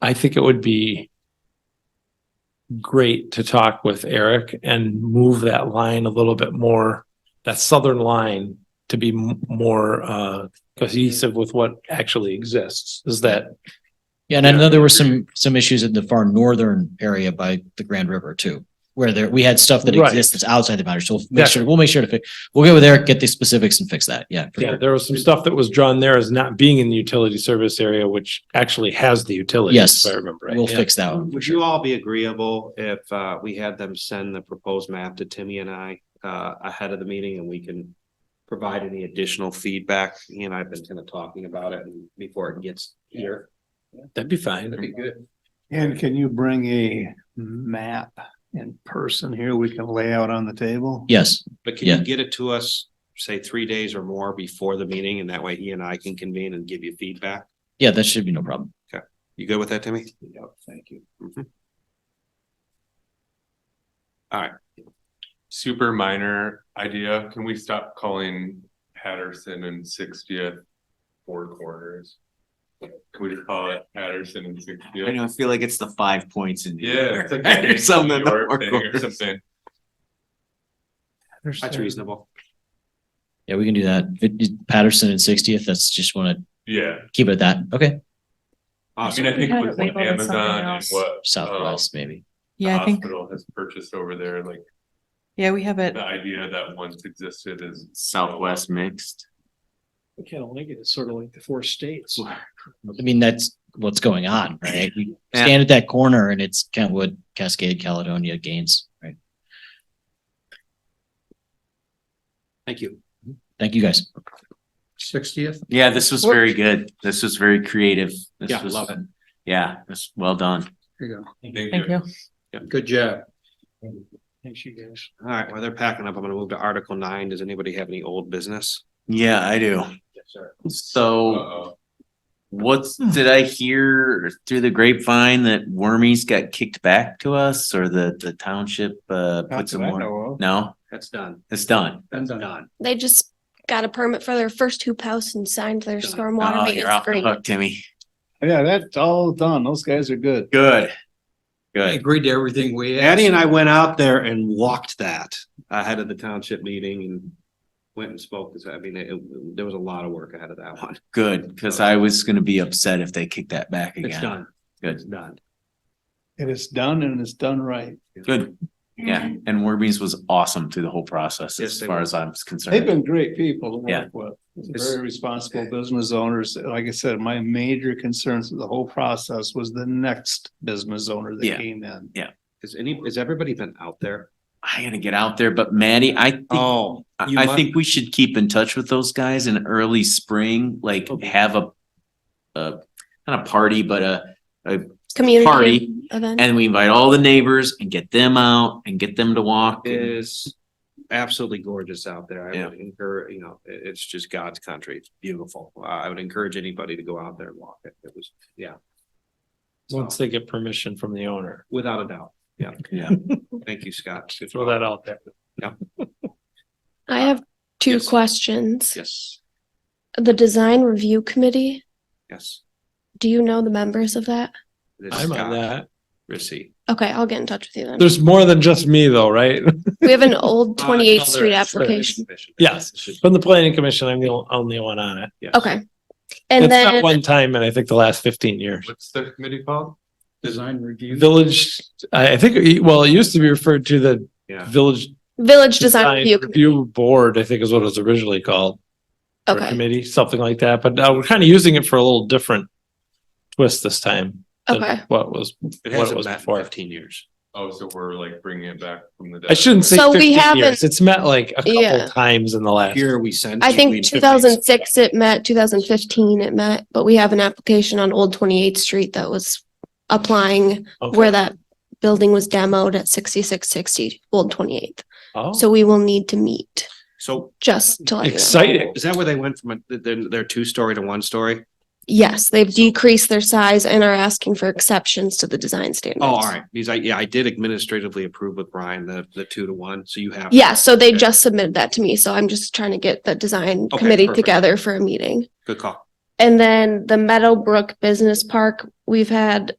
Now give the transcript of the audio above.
I think it would be great to talk with Eric and move that line a little bit more, that southern line to be m- more uh cohesive with what actually exists. Is that Yeah, and I know there were some, some issues in the far northern area by the Grand River too, where there, we had stuff that Right. exists that's outside the boundary. So we'll make sure, we'll make sure to fix, we'll get with Eric, get the specifics and fix that. Yeah. for Yeah, sure. there was some stuff that was drawn there as not being in the utility service area, which actually has the utility. Yes, If I remember right. We'll Yeah. fix that one. Um, Would you all be agreeable if uh we had them send the proposed map to Timmy and I uh ahead of the meeting and we can provide any additional feedback? He and I have been kind of talking about it and before it gets here. That'd be fine. be good. And can you bring a map in person here we can lay out on the table? Yes, But can Yeah. you get it to us, say, three days or more before the meeting? And that way he and I can convene and give you feedback. yeah, that should be no problem. You good with that, Timmy? Mm-hmm. Yep, thank you. super minor idea. Can we stop calling Patterson and Sixtieth Four Corners? Can we just call it Patterson and Sixtieth? I know, I feel like it's the five points in. New Yeah. York, it's like right? a Or something. New York or- thing Or something. That's reasonable. Yeah, we can do that. If it- Patterson and Sixtieth, that's just want to Yeah. keep it at that. Okay. I Awesome. mean, I think Kind of with what labeled it something Amazon and else. what. um, Southwest maybe. the Yeah, I think, Hospital has purchased over there, like yeah, we have it. the idea that once existed is. Southwest mixed. We can't link it. It's sort of like the four states. I mean, that's what's going on, right? We stand at that corner and it's Kentwood, Cascade, Caledonia, Gaines, right? Thank you. Thank you guys. Sixtieth? Yeah, this was very good. This was very creative. This Yeah, was- love it. Yeah, this, well done. Thank you. Good job. Thanks, you guys. All right, while they're packing up, I'm gonna move to Article nine. Does anybody have any old business? Yeah, I do. Yes, sir. So Uh-oh. what's, did I hear through the grapevine that Wormies got kicked back to us or the, the township, uh, put some more? No, That's done. it's done. That's done. They just got a permit for their first hoop house and signed their Done. stormwater Oh, you're maintenance off the agreement. hook, Timmy. Yeah, that's all done. Those guys are good. Good. Good. agreed to everything we asked. Addie and I went out there and walked that ahead of the township meeting and went and spoke. 'cause, I mean, it- it- there was a lot of work ahead of that one. Good, because I was gonna be upset if they kicked that back It's again. done. Good. It's done. And it's done and it's done right. Good. Yeah, and Warby's was awesome through the whole process Yes, as they far were. as I'm They've concerned. been great people to Yeah. work with. It's- Very responsible business owners. Like I said, my major concerns with the whole process was the next business owner that Yeah. came in. Has any, has everybody been out there? I gotta get out there, but Maddie, I think, I Oh. you I must- think we should keep in touch with those guys in early spring, like have a a, not a party, but a, Community Party. event. and we invite all the neighbors and get them out and get them to walk. and- Is absolutely gorgeous out there. I Yeah. would encourage, you know, it, it's just God's country. It's beautiful. Uh, I would encourage anybody to go out there and walk it. It was, yeah. So, Once they get permission from the owner, without a doubt. Yeah. Thank you, Scott. Good throw that out there. I have two yes. questions. Yes, The design review committee, yes. do you know the members of that? It is I'm on Scott that. Rissy. Okay, I'll get in touch with you then. There's more than just me though, right? We have an old Uh, no, 28th there Street is. There application. Yes. From the planning commission, I'm the o- only one on it. Yes. Okay. It's And not then, one time in I think the last fifteen years. What's the committee called? Design review. Village, I, I think, well, it used to be referred to the Yeah. Village Village Design Design Review, Committee. Review Board, I think is what it was originally called. or okay, Committee, something like that, but now we're kind of using it for a little different twist this time. than Okay. What was, It what it hasn't was met in before. fifteen years. Oh, so we're like bringing it back from the. I shouldn't say So we fifteen haven't- years. It's met like a Yeah. couple times in the last. Here we sent. I we- think two thousand six it met, two thousand fifteen it met, but we have an application on Old Twenty Eighth Street that was applying Okay. where that building was demoed at sixty-six sixty Old Twenty Eighth. Oh. So we will need to meet, So just to let you know. Exciting. is that where they went from, a- their, their two-story to one-story? Yes, they've decreased their size and are asking for exceptions to the design standards. Oh, all right. Because I, yeah, I did administratively approve with Brian, the, the two to one. So you have. Yeah, so they Okay. just submitted that to me, so I'm just trying to get the design Okay, committee perfect. together for a meeting. Good call. And then the Meadowbrook Business Park, we've had